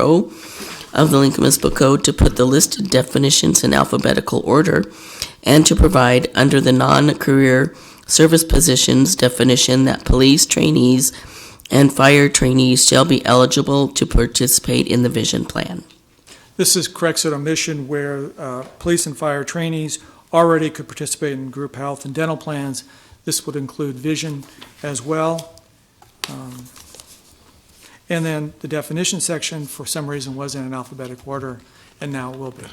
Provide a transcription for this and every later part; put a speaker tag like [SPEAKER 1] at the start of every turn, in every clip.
[SPEAKER 1] O of the Lincoln Municipal Code to put the listed definitions in alphabetical order and to provide under the non-career service positions definition that police trainees and fire trainees shall be eligible to participate in the vision plan.
[SPEAKER 2] This is corrects an omission where uh, police and fire trainees already could participate in group health and dental plans. This would include vision as well. Um, And then the definition section, for some reason, was in an alphabetic order, and now will be.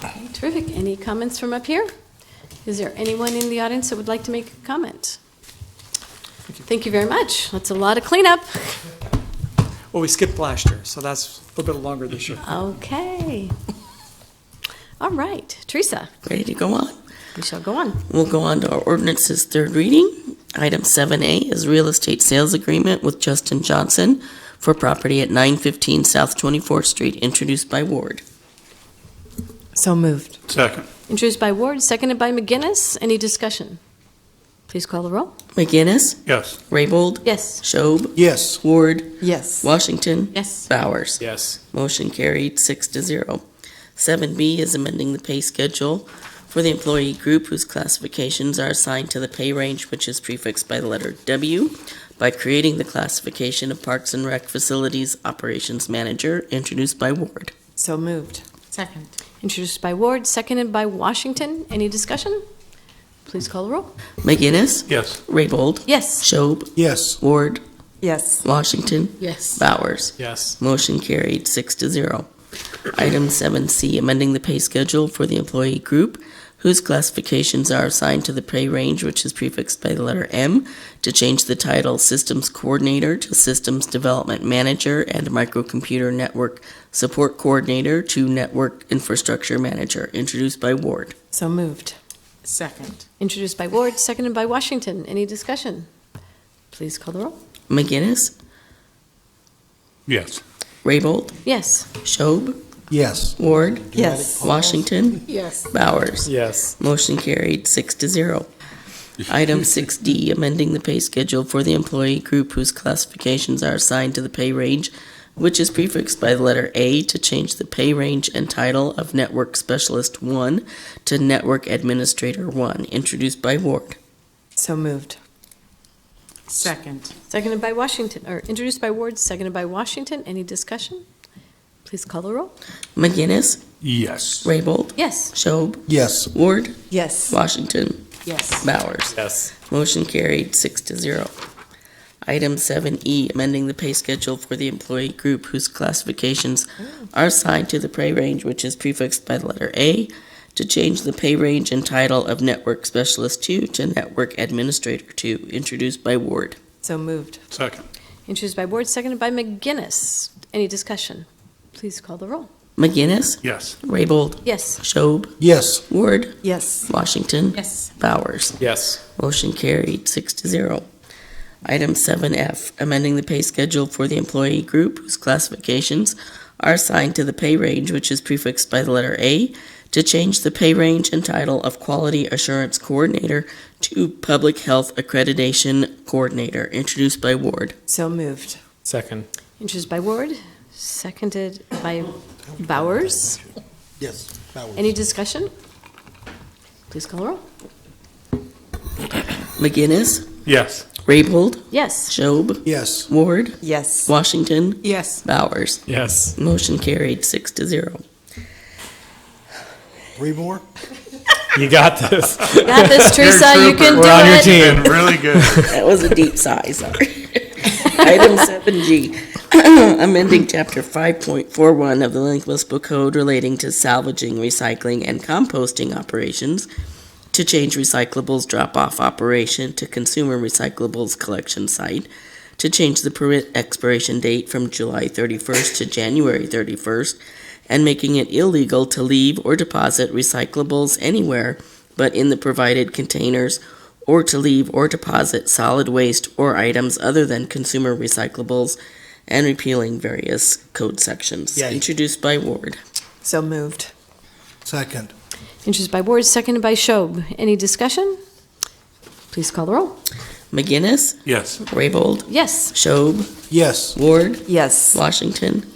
[SPEAKER 3] Okay, Terrific. Any comments from up here? Is there anyone in the audience that would like to make a comment? Thank you very much. That's a lot of cleanup.
[SPEAKER 2] Well, we skipped last year, so that's a little bit longer this year.
[SPEAKER 3] Okay. All right, Teresa,
[SPEAKER 1] Ready to go on?
[SPEAKER 3] we shall go on.
[SPEAKER 1] We'll go on to our ordinance's third reading. Item 7A is real estate sales agreement with Justin Johnson for property at 915 South 24th Street, introduced by Ward.
[SPEAKER 4] So moved.
[SPEAKER 5] Second.
[SPEAKER 3] Introduced by Ward, seconded by McGinnis. Any discussion? Please call the roll.
[SPEAKER 1] McGinnis,
[SPEAKER 5] Yes.
[SPEAKER 1] Raybold,
[SPEAKER 3] Yes.
[SPEAKER 1] Schob,
[SPEAKER 5] Yes.
[SPEAKER 1] Ward,
[SPEAKER 4] Yes.
[SPEAKER 1] Washington,
[SPEAKER 3] Yes.
[SPEAKER 1] Bowers.
[SPEAKER 5] Yes.
[SPEAKER 1] Motion carried, six to zero. Seven B is amending the pay schedule for the employee group whose classifications are assigned to the pay range which is prefixed by the letter W by creating the classification of Parks and Rec Facilities Operations Manager, introduced by Ward.
[SPEAKER 4] So moved.
[SPEAKER 6] Second.
[SPEAKER 3] Introduced by Ward, seconded by Washington. Any discussion? Please call the roll.
[SPEAKER 1] McGinnis,
[SPEAKER 5] Yes.
[SPEAKER 1] Raybold,
[SPEAKER 3] Yes.
[SPEAKER 1] Schob,
[SPEAKER 5] Yes.
[SPEAKER 1] Ward,
[SPEAKER 4] Yes.
[SPEAKER 1] Washington,
[SPEAKER 6] Yes.
[SPEAKER 1] Bowers.
[SPEAKER 5] Yes.
[SPEAKER 1] Motion carried, six to zero. Item seven C, amending the pay schedule for the employee group whose classifications are assigned to the pay range which is prefixed by the letter M to change the title Systems Coordinator to Systems Development Manager and Microcomputer Network Support Coordinator to Network Infrastructure Manager, introduced by Ward.
[SPEAKER 4] So moved.
[SPEAKER 6] Second.
[SPEAKER 3] Introduced by Ward, seconded by Washington. Any discussion? Please call the roll.
[SPEAKER 1] McGinnis,
[SPEAKER 5] Yes.
[SPEAKER 1] Raybold,
[SPEAKER 3] Yes.
[SPEAKER 1] Schob,
[SPEAKER 5] Yes.
[SPEAKER 1] Ward,
[SPEAKER 4] Yes.
[SPEAKER 1] Washington,
[SPEAKER 6] Yes.
[SPEAKER 1] Bowers.
[SPEAKER 5] Yes.
[SPEAKER 1] Motion carried, six to zero. Item 6D, amending the pay schedule for the employee group whose classifications are assigned to the pay range, which is prefixed by the letter A to change the pay range and title of Network Specialist 1 to Network Administrator 1, introduced by Ward.
[SPEAKER 4] So moved.
[SPEAKER 6] Second.
[SPEAKER 3] Seconded by Washington, or introduced by Ward, seconded by Washington. Any discussion? Please call the roll.
[SPEAKER 1] McGinnis,
[SPEAKER 5] Yes.
[SPEAKER 1] Raybold,
[SPEAKER 3] Yes.
[SPEAKER 1] Schob,
[SPEAKER 5] Yes.
[SPEAKER 1] Ward,
[SPEAKER 4] Yes.
[SPEAKER 1] Washington,
[SPEAKER 6] Yes.
[SPEAKER 1] Bowers.
[SPEAKER 5] Yes.
[SPEAKER 1] Motion carried, six to zero. Item 7E, amending the pay schedule for the employee group whose classifications are assigned to the pay range which is prefixed by the letter A to change the pay range and title of Network Specialist 2 to Network Administrator 2, introduced by Ward.
[SPEAKER 4] So moved.
[SPEAKER 5] Second.
[SPEAKER 3] Introduced by Ward, seconded by McGinnis. Any discussion? Please call the roll.
[SPEAKER 1] McGinnis,
[SPEAKER 5] Yes.
[SPEAKER 1] Raybold,
[SPEAKER 3] Yes.
[SPEAKER 1] Schob,
[SPEAKER 5] Yes.
[SPEAKER 1] Ward,
[SPEAKER 4] Yes.
[SPEAKER 1] Washington,
[SPEAKER 6] Yes.
[SPEAKER 1] Bowers.
[SPEAKER 5] Yes.
[SPEAKER 1] Motion carried, six to zero. Item 7F, amending the pay schedule for the employee group whose classifications are assigned to the pay range which is prefixed by the letter A to change the pay range and title of Quality Assurance Coordinator to Public Health Accreditation Coordinator, introduced by Ward.
[SPEAKER 4] So moved.
[SPEAKER 7] Second.
[SPEAKER 3] Introduced by Ward, seconded by Bowers.
[SPEAKER 8] Yes. Bowers.
[SPEAKER 3] Any discussion? Please call the roll.
[SPEAKER 1] McGinnis,
[SPEAKER 5] Yes.
[SPEAKER 1] Raybold,
[SPEAKER 3] Yes.
[SPEAKER 1] Schob,
[SPEAKER 8] Yes.
[SPEAKER 1] Ward,
[SPEAKER 4] Yes.
[SPEAKER 1] Washington,
[SPEAKER 6] Yes.
[SPEAKER 1] Bowers.
[SPEAKER 7] Yes.
[SPEAKER 1] Motion carried, six to zero.
[SPEAKER 8] Three more?
[SPEAKER 7] You got this.
[SPEAKER 3] You Got this, Teresa. You can do
[SPEAKER 7] We're on your
[SPEAKER 3] it.
[SPEAKER 7] team.
[SPEAKER 5] Been really good.
[SPEAKER 1] That was a deep sigh, sorry. Item seven G, amending chapter five point four one of the Lincoln Municipal Code relating to salvaging, recycling, and composting operations to change recyclables drop-off operation to consumer recyclables collection site, to change the permit expiration date from July thirty-first to January thirty-first, and making it illegal to leave or deposit recyclables anywhere but in the provided containers or to leave or deposit solid waste or items other than consumer recyclables and repealing various code sections.
[SPEAKER 8] Yay.
[SPEAKER 1] Introduced by Ward.
[SPEAKER 4] So moved.
[SPEAKER 8] Second.
[SPEAKER 3] Introduced by Ward, seconded by Schob. Any discussion? Please call the roll.
[SPEAKER 1] McGinnis,
[SPEAKER 5] Yes.
[SPEAKER 1] Raybold,
[SPEAKER 3] Yes.
[SPEAKER 1] Schob,
[SPEAKER 8] Yes.
[SPEAKER 1] Ward,
[SPEAKER 4] Yes.
[SPEAKER 1] Washington,